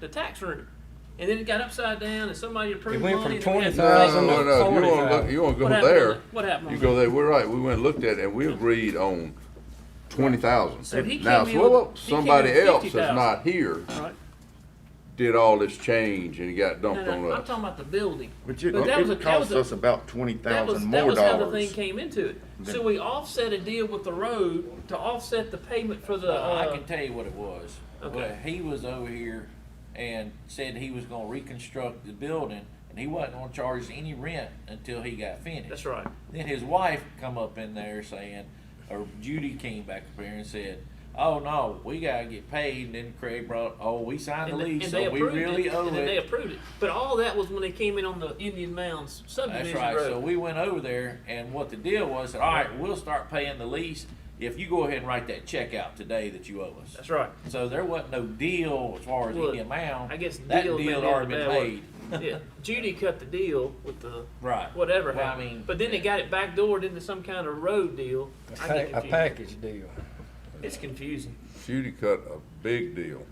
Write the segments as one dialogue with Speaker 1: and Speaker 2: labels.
Speaker 1: the tax room. And then it got upside down and somebody approved
Speaker 2: went
Speaker 1: money.
Speaker 2: from
Speaker 1: and we had to
Speaker 2: $20,000
Speaker 1: pay.
Speaker 2: to
Speaker 3: No, no, no, if you wanna look, you wanna
Speaker 1: What
Speaker 3: go
Speaker 1: happened on
Speaker 3: there,
Speaker 1: that? What happened
Speaker 3: you
Speaker 1: on
Speaker 3: go
Speaker 1: that?
Speaker 3: there, we're right, we went and looked at it, and we agreed on twenty thousand.
Speaker 1: So he
Speaker 3: Now,
Speaker 1: came in
Speaker 3: so-
Speaker 1: with- he came in
Speaker 3: somebody
Speaker 1: with
Speaker 3: else that's
Speaker 1: 50,000.
Speaker 3: not here
Speaker 1: Right.
Speaker 3: did all this change and it got
Speaker 1: No,
Speaker 3: dumped on
Speaker 1: no, I'm
Speaker 3: us.
Speaker 1: talking about the building.
Speaker 4: But you,
Speaker 1: that was a-
Speaker 4: it
Speaker 1: that
Speaker 4: cost
Speaker 1: was a-
Speaker 4: us about twenty
Speaker 1: That was,
Speaker 4: thousand
Speaker 1: that
Speaker 4: more
Speaker 1: was how the thing
Speaker 4: dollars.
Speaker 1: came into it. So
Speaker 4: Then-
Speaker 1: we offset a deal with the road to offset the payment for the,
Speaker 5: I
Speaker 1: uh,
Speaker 5: can tell you what it was.
Speaker 1: Okay.
Speaker 5: Well, he was over here and said he was gonna reconstruct the building and he wasn't gonna charge any rent until he got finished.
Speaker 1: that's right.
Speaker 5: Then his wife come up in there saying, or Judy came back up here and said, "Oh no, we gotta get paid." And then Craig brought, "Oh, we signed the
Speaker 1: And,
Speaker 5: lease,
Speaker 1: and they
Speaker 5: so we
Speaker 1: approved
Speaker 5: really
Speaker 1: it,
Speaker 5: owe
Speaker 1: and then they
Speaker 5: it."
Speaker 1: approved it. But all that was when they came in on the Indian Mounds
Speaker 5: That's
Speaker 1: subdivision
Speaker 5: right.
Speaker 1: road.
Speaker 5: So we went over there, and what the deal was, all right, we'll start paying the lease if you go ahead and write that check out today that you owe us.
Speaker 1: that's right.
Speaker 5: So there wasn't no deal as far as
Speaker 1: Well,
Speaker 5: any amount.
Speaker 1: I guess
Speaker 5: that
Speaker 1: deal
Speaker 5: deal
Speaker 1: may
Speaker 5: had
Speaker 1: be
Speaker 5: already
Speaker 1: the
Speaker 5: been
Speaker 1: bad
Speaker 5: made.
Speaker 1: yeah, Judy cut the deal with the
Speaker 5: Right.
Speaker 1: whatever
Speaker 5: Well, I
Speaker 1: happened.
Speaker 5: mean-
Speaker 1: but then they got it backdoored into some kind of road deal.
Speaker 2: A
Speaker 1: I
Speaker 2: pa-
Speaker 1: get
Speaker 2: a
Speaker 1: confused.
Speaker 2: package deal.
Speaker 1: It's confusing.
Speaker 3: Judy cut a big deal.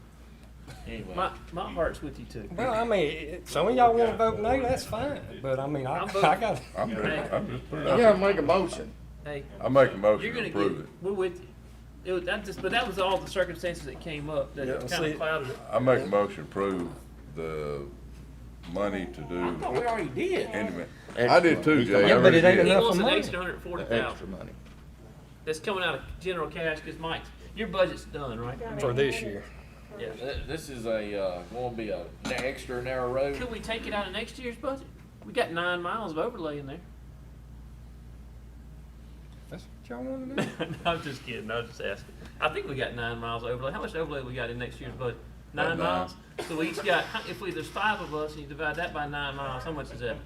Speaker 5: Anyway,
Speaker 1: My my heart's with you too.
Speaker 2: Well, I mean, it- some of y'all wanna vote no, that's fine, but I mean, I,
Speaker 1: I'm
Speaker 2: I
Speaker 1: voting.
Speaker 2: got,
Speaker 3: I'm just, I'm just putting it
Speaker 4: Yeah,
Speaker 3: out.
Speaker 4: make a motion.
Speaker 1: Hey,
Speaker 3: I make a motion
Speaker 1: you're gonna
Speaker 3: to approve
Speaker 1: get.
Speaker 3: it.
Speaker 1: We're with you. It was, that just, but that was all the circumstances that came up that
Speaker 2: Yeah,
Speaker 1: kind
Speaker 2: see-
Speaker 1: of clouded it.
Speaker 3: I make a motion to approve the money to
Speaker 5: I thought we
Speaker 3: do.
Speaker 5: already did.
Speaker 3: Intimate- I did too, Jay. I
Speaker 2: Yeah, but it
Speaker 3: really
Speaker 2: ain't
Speaker 3: did.
Speaker 1: He
Speaker 2: enough
Speaker 1: wants
Speaker 2: for
Speaker 1: an
Speaker 2: money.
Speaker 1: extra hundred forty
Speaker 4: Extra
Speaker 1: thousand.
Speaker 4: money.
Speaker 1: That's coming out of general cash because Mike's your budget's done, right? I mean,
Speaker 2: for this year.
Speaker 1: yeah.
Speaker 5: Th- This is a uh, going to be a, an extra narrow road.
Speaker 1: Could we take it out of next year's budget? We got nine miles of overlay in there.
Speaker 2: That's what y'all wanna do?
Speaker 1: no, I'm just kidding. I was just asking. I think we got nine miles overlay. How much overlay we got in next year's budget? Nine,
Speaker 3: About nine.
Speaker 1: miles. So we each got. If we there's five of us and you divide that by nine miles, how much is that?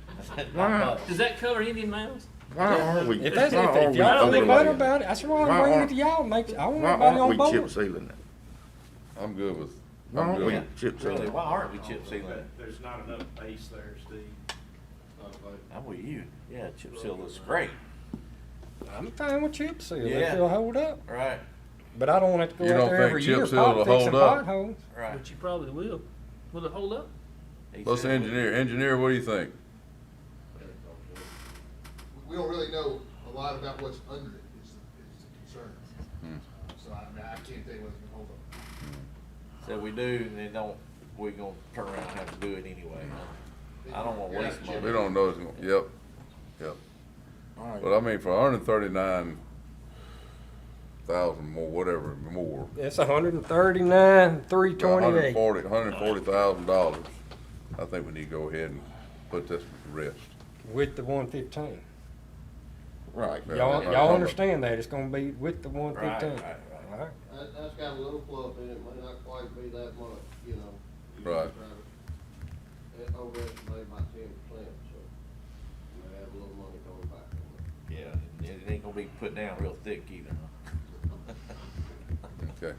Speaker 4: Wow.
Speaker 1: Does that cover Indian miles?
Speaker 4: Why are we?
Speaker 2: If that's,
Speaker 4: why
Speaker 2: if,
Speaker 4: are
Speaker 2: if
Speaker 4: we
Speaker 2: y'all
Speaker 4: overlaying?
Speaker 2: think better about it, that's why
Speaker 4: Why
Speaker 2: I'm bringing it
Speaker 4: aren't-
Speaker 2: to y'all, make, I want
Speaker 4: Why
Speaker 2: everybody on
Speaker 4: aren't we chip
Speaker 2: board.
Speaker 4: sealing it?
Speaker 3: I'm good with,
Speaker 4: Why
Speaker 3: I'm
Speaker 4: aren't
Speaker 3: good
Speaker 4: we
Speaker 3: with
Speaker 4: chip sealing
Speaker 5: Really,
Speaker 4: it?
Speaker 5: why aren't we chip sealing? it?
Speaker 6: There's not enough base there, Steve.
Speaker 5: I'm with you. Yeah, chip seal looks great.
Speaker 2: I'm fine with chip seal,
Speaker 5: Yeah.
Speaker 2: if it'll hold up,
Speaker 5: Right,
Speaker 2: but I don't want it to
Speaker 3: You
Speaker 2: go out
Speaker 3: don't
Speaker 2: there
Speaker 3: think
Speaker 2: every
Speaker 3: chip
Speaker 2: year,
Speaker 3: seal will
Speaker 2: politics and
Speaker 3: hold up?
Speaker 2: potholes.
Speaker 5: right.
Speaker 1: But you probably will. Will it hold up?
Speaker 5: He
Speaker 3: Let's
Speaker 5: said-
Speaker 3: engineer, engineer, what do you think?
Speaker 7: we don't really know a lot about what's under it is, is the concern. So I mean, I can't tell you what's gonna hold up.
Speaker 5: So we do, and then don't. We're gonna turn around and have to do it anyway. I don't want to waste
Speaker 7: Yeah,
Speaker 3: We
Speaker 5: money.
Speaker 3: don't know, it's gonna- yep, yep.
Speaker 4: All right.
Speaker 3: But I mean, for hundred and thirty-nine thousand more, whatever, more,
Speaker 2: It's a hundred and thirty-nine, three
Speaker 3: hundred and
Speaker 2: twenty-eight.
Speaker 3: forty, hundred and forty thousand dollars, I think we need to go ahead and put this to rest.
Speaker 2: With the one fifteen.
Speaker 4: Right.
Speaker 3: Yeah,
Speaker 2: Y'all,
Speaker 3: right.
Speaker 2: y'all understand that, it's gonna be with the one
Speaker 5: Right,
Speaker 2: fifteen.
Speaker 5: right, right.
Speaker 2: right.
Speaker 8: That, that's got a little fluff in it, may not quite be that much, you know.
Speaker 3: Right.
Speaker 8: It overestimated by ten percent, so you may have a little money going back on it.
Speaker 5: Yeah, it ain't gonna be put down real thick either.
Speaker 3: Okay,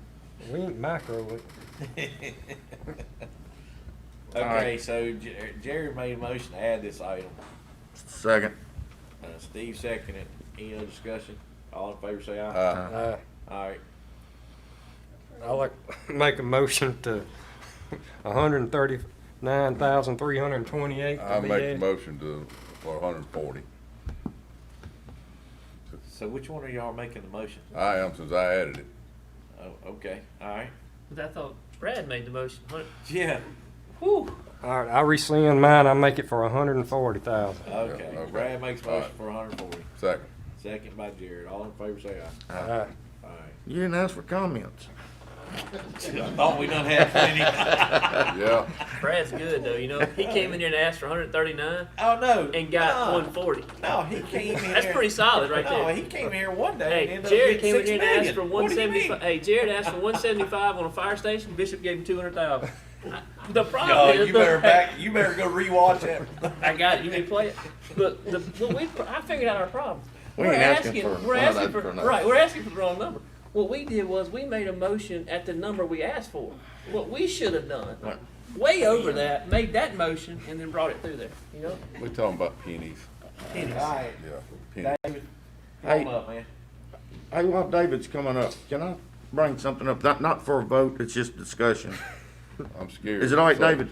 Speaker 2: We ain't micro it.
Speaker 5: Okay, so Jer- Jerry made a motion to add this item.
Speaker 4: Second.
Speaker 5: Uh, Steve seconded. Any other discussion? All in favor, say aye.
Speaker 3: uh,
Speaker 2: Uh,
Speaker 5: All right.
Speaker 2: I like, make a motion to a hundred and thirty-nine thousand, three hundred and twenty-eight
Speaker 3: I
Speaker 2: to be
Speaker 3: make the
Speaker 2: added.
Speaker 3: motion to, for hundred and forty.
Speaker 5: So which one are y'all making the motion?
Speaker 3: I am, since I added it.
Speaker 5: Oh, okay. All right.
Speaker 1: But I thought Brad made the motion. Hun-
Speaker 5: Yeah.
Speaker 1: Whew.
Speaker 2: All right, I rescind mine, I make it for a hundred and forty thousand.
Speaker 5: Okay.
Speaker 3: okay.
Speaker 5: Brad makes
Speaker 3: All
Speaker 5: motion for 140.
Speaker 3: Second,
Speaker 5: Second by Jared. All in favor, say
Speaker 3: Ah.
Speaker 5: aye.
Speaker 2: Aye.
Speaker 5: All right.
Speaker 4: You didn't ask for comments.
Speaker 5: I thought we done had plenty.
Speaker 3: yeah,
Speaker 1: Brad's good though. You know, he came in here and asked for 139
Speaker 5: oh no.
Speaker 1: and got
Speaker 5: no,
Speaker 1: 140.
Speaker 5: No, he came in.
Speaker 1: That's
Speaker 5: here-
Speaker 1: pretty solid right
Speaker 5: No,
Speaker 1: there.
Speaker 5: he came here one day. and
Speaker 1: Hey,
Speaker 5: ended up
Speaker 1: Jared
Speaker 5: getting
Speaker 1: came in here
Speaker 5: six
Speaker 1: and asked
Speaker 5: million.
Speaker 1: for
Speaker 5: What
Speaker 1: one
Speaker 5: do you mean?
Speaker 1: seventy-five. Hey, Jared asked for one seventy-five on a fire station. Bishop gave him two hundred thousand. The
Speaker 5: No,
Speaker 1: problem is,
Speaker 5: you better Oh, back. You better go rewatch it.
Speaker 1: I got it. You may play it. Look, the, what we, I figured out our problem.
Speaker 4: We
Speaker 1: are
Speaker 4: ain't asking for
Speaker 1: we're
Speaker 4: none of
Speaker 1: asking
Speaker 4: that
Speaker 1: for,
Speaker 4: for nothing.
Speaker 1: right. We're asking for the wrong number. What we did was we made a motion at the number we asked for. What we should have done,
Speaker 4: Right.
Speaker 1: way over that, made that motion and then brought it through there. You know,
Speaker 3: we talking about pennies,
Speaker 5: All right,
Speaker 3: yeah, pennies.
Speaker 5: David.
Speaker 4: Hey.
Speaker 5: Come up, man.
Speaker 4: Hey, while David's coming up, can I bring something up? Not, not for a vote, it's just discussion.
Speaker 9: I'm scared.
Speaker 3: Is it all right,
Speaker 9: So-
Speaker 3: David?